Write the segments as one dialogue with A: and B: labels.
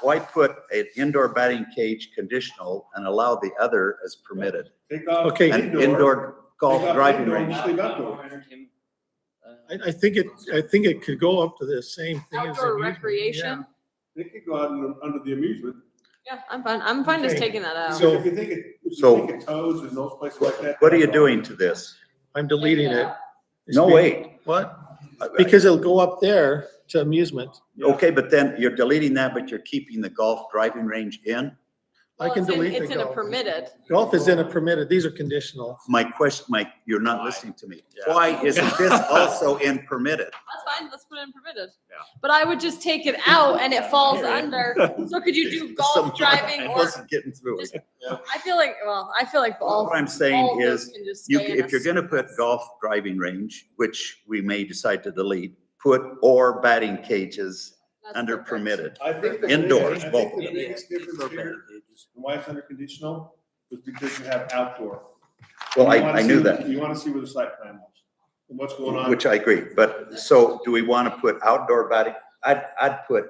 A: Why put an indoor batting cage conditional and allow the other as permitted?
B: Take off
C: Okay.
A: An indoor golf
B: Take off
A: driving
B: indoor.
A: range.
B: sleep outdoor.
D: Entertainment, uh,
C: I, I think it, I think it could go up to the same thing as.
E: Outdoor
C: amusement, yeah.
E: recreation?
B: They could go out under- under the amusement.
E: Yeah, I'm fine, I'm fine just
C: Okay.
E: taking that out.
C: So-
B: If you think it, if
A: So-
B: you think it toes and those places like that.
A: What are you doing to this?
C: I'm deleting it.
A: No, wait.
C: What? Because it'll go up there to amusement.
A: Okay, but then you're deleting that, but you're keeping the golf driving range in?
C: I
E: Well,
C: can
E: it's in-
C: delete the
E: It's in a
C: golf.
E: permitted.
C: Golf is in a permitted, these are conditional.
A: My question, Mike, you're not
D: Why?
A: listening to me.
D: Yeah.
A: Why isn't this also in permitted?
E: That's fine, let's put it in permitted.
D: Yeah.
E: But I would just take it out and it falls under, so could you do
A: Someone-
E: golf driving
A: I
E: or,
A: wasn't getting through it.
E: I feel like, well, I feel like all.
A: What I'm
E: all
A: saying
E: those
A: is,
E: can just
A: you,
E: stay in
A: if
E: a
A: you're gonna put
E: sentence.
A: golf driving range, which we may decide to delete, put or batting cages
E: That's
A: under
E: perfect.
A: permitted.
B: I think. the
A: Indoors,
B: biggest- I
A: both
B: think
A: of
B: the
A: them.
B: biggest difference here, and why it's under conditional, is because you have outdoor.
A: Well, Oh, I,
B: You wanna
A: I knew
B: see-
A: that,
B: You wanna see where the site plan was, and what's going on.
A: which I agree, but so do we wanna put outdoor batting? I'd, I'd put,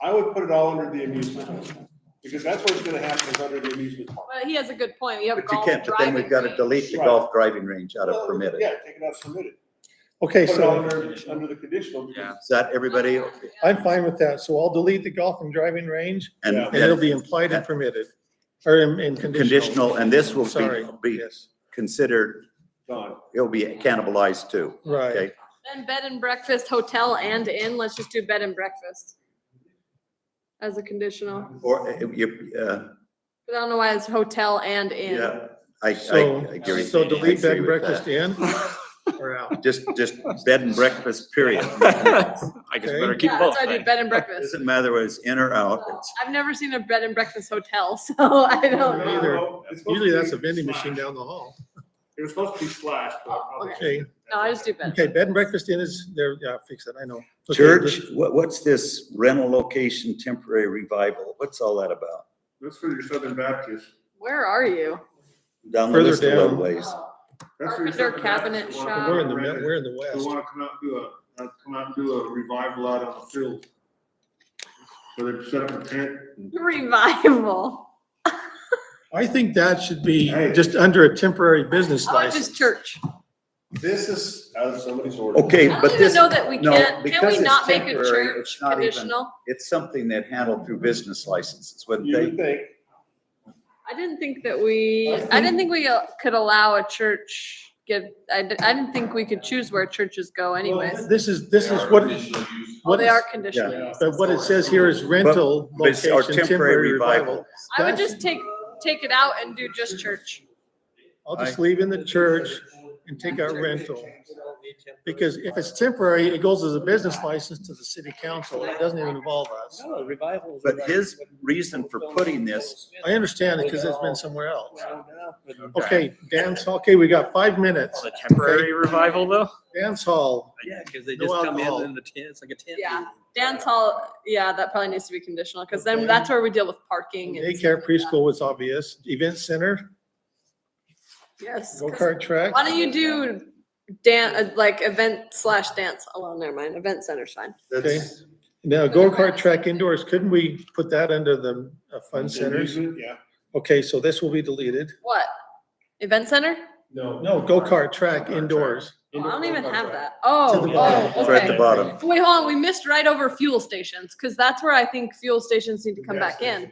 B: I would put it all under the amusement, because that's what's gonna happen is under the amusement park.
E: Well, he has a good point, you have
A: but you
E: golf
A: can't, but then
E: driving.
A: we've gotta
E: range.
A: delete the
B: Right.
A: golf driving range out
B: Well,
A: of permitted.
B: Yeah, take it out, submit it.
C: Okay,
B: Put it all
C: so
B: under, under the conditional. because
D: Yeah.
A: Is that everybody? Okay.
E: Yeah.
C: I'm fine with that. So I'll delete the golf and driving range
A: And,
B: Yeah.
C: and it'll
A: and
C: be implied and permitted, or in, in conditional.
A: conditional, and this will
C: Sorry,
A: be, be
C: yes,
A: considered,
B: it's Gone.
A: it'll be cannibalized too,
C: right.
A: okay?
E: Then bed and breakfast, hotel and inn, let's just do bed and breakfast. As a conditional,
A: Or, uh, you, uh,
E: but I don't know why it's hotel and inn.
A: yeah, I, I,
C: So,
A: I agree.
C: so delete
A: I agree
C: bed and
A: with
C: breakfast
A: that.
C: in or out?
A: Just, just bed and breakfast, period.
D: I guess
C: Okay.
D: better keep
E: Yeah,
D: both.
E: that's why I do
D: right?
E: bed and breakfast.
A: Doesn't matter whether it's in or out, it's,
E: I've never seen a bed and breakfast hotel, so I don't know.
C: Either.
B: It's supposed to
C: Usually
B: be
C: that's a vending machine
B: slashed.
C: down the hall.
B: It was supposed to be slashed, but I probably.
E: Okay.
C: Okay,
E: No, I just do bed. and
C: okay, bed and breakfast in is there, yeah, fix it, I know. Okay,
A: church, what, what's this rental location temporary revival? What's all that about?
B: That's for your Southern Baptist.
E: Where are you?
A: Down the
C: Further
A: list a
C: down.
A: little ways.
B: That's for your
E: Carpenter
B: Southern
E: cabinet
B: Baptist who wanna
E: shop.
B: come
C: We're in the,
B: out
C: mid-
B: and
C: we're in the
B: Who
C: west.
B: wanna come out and do a, uh, come out and do a revival out on the field. Where they set up a tent. and-
E: Revival.
C: I think that should be
B: Hey.
C: just under a temporary business
E: Oh, it's
C: license.
E: just church.
B: This is out of somebody's order.
A: Okay,
E: I don't
A: but
E: even
A: this,
E: know that we
A: no,
E: can't, can
A: because
E: we
A: it's
E: not make a
A: temporary,
E: church
A: it's not even-
E: conditional?
A: it's something that handled through business licenses, wouldn't
B: You
A: they?
B: would think,
E: I didn't think that we,
B: I
E: I didn't think we uh, could allow a church give, I, di- I didn't think we could choose where churches go anyways.
C: This is, this is what,
E: Oh,
C: what
E: they
C: is-
E: are conditional use.
C: but what it says here is rental
A: But it's- or
C: location, temporary revival.
E: I would
C: That's-
E: just take, take it out and do just church.
C: I'll just leave in the church and take out rental. Because if it's temporary, it goes as a business license to the city council, it doesn't even involve us.
F: No, revival. is
A: But
F: like-
A: his reason for putting this,
C: I understand it because it's been somewhere else.
F: Round up and-
C: Okay, dance, okay, we got five minutes.
D: The temporary revival though?
C: Dance hall,
F: Yeah, because they
C: No
F: just come
C: alcohol.
F: in in the tent, it's like a tent.
E: Yeah.
F: meeting.
E: Dance hall, yeah, that probably needs to be conditional, because
C: Okay.
E: then that's where we deal with parking and. stuff
C: daycare,
E: like that.
C: preschool was obvious, event center,
E: Yes. 'cause
C: go-kart track.
E: Why don't you do dan, uh, like event slash dance, oh, well, never mind, event center's fine.
A: that's,
C: Now,
E: For the
C: go-kart
E: rest.
C: track indoors, couldn't we put that under the uh, fun centers?
B: amusement, Yeah.
C: Okay, so this will be deleted.
E: What? Event center?
B: No.
C: No, go-kart track indoors.
E: Oh, I don't even have that.
C: To
E: Oh,
C: the bottom.
E: oh,
A: it's right at the
E: okay.
A: bottom.
E: Wait, hold on, we missed right over fuel stations, because that's where I think fuel stations need to come back in.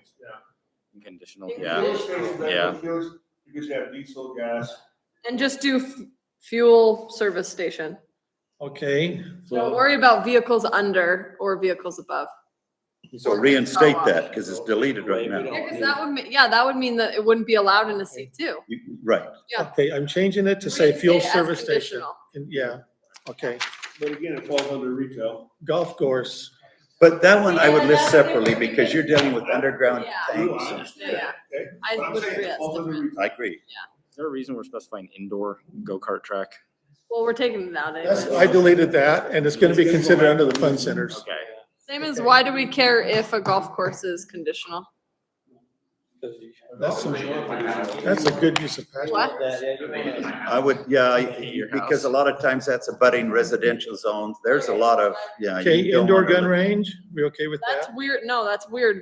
D: Conditional, yeah. Yeah.
B: Because you have diesel gas.
E: And just do f- fuel service station.
C: Okay,
E: Don't worry about vehicles under or vehicles above.
A: So reinstate that because it's deleted right now.
E: Yeah, because that would, me- yeah, that would mean that it wouldn't be allowed in a C two.
A: You- Right.
E: Yeah.
C: okay, I'm changing it to say fuel service station. And- Yeah, okay.
B: But again, it falls under retail.
C: Golf course,
A: But that one I would
E: Yeah,
A: list
E: that's the
A: separately
E: one we
A: because you're dealing with underground
E: Yeah.
A: tanks. and-
E: Yeah.
B: Okay.
E: I
B: But I'm
E: would
B: saying
E: agree
B: it
E: that's
B: falls under
E: different.
B: retail.
A: I agree.
D: Is there a reason we're specifying indoor go-kart track?
E: Well, we're taking it out anyway.
C: that's, I deleted that and it's gonna be considered under the fun centers.
D: Okay.
E: Same as
C: Okay.
E: why do we care if a golf course is conditional?
C: That's, a- that's a good use of pasture.
E: What?
A: I would, yeah, I-
D: Your
A: because a
D: house.
A: lot of times that's a budding residential zone. There's a lot of, yeah. you
C: Okay,
A: don't
C: indoor
A: wanna
C: gun
A: live-
C: range, we okay with that?
E: That's weird. No, that's weird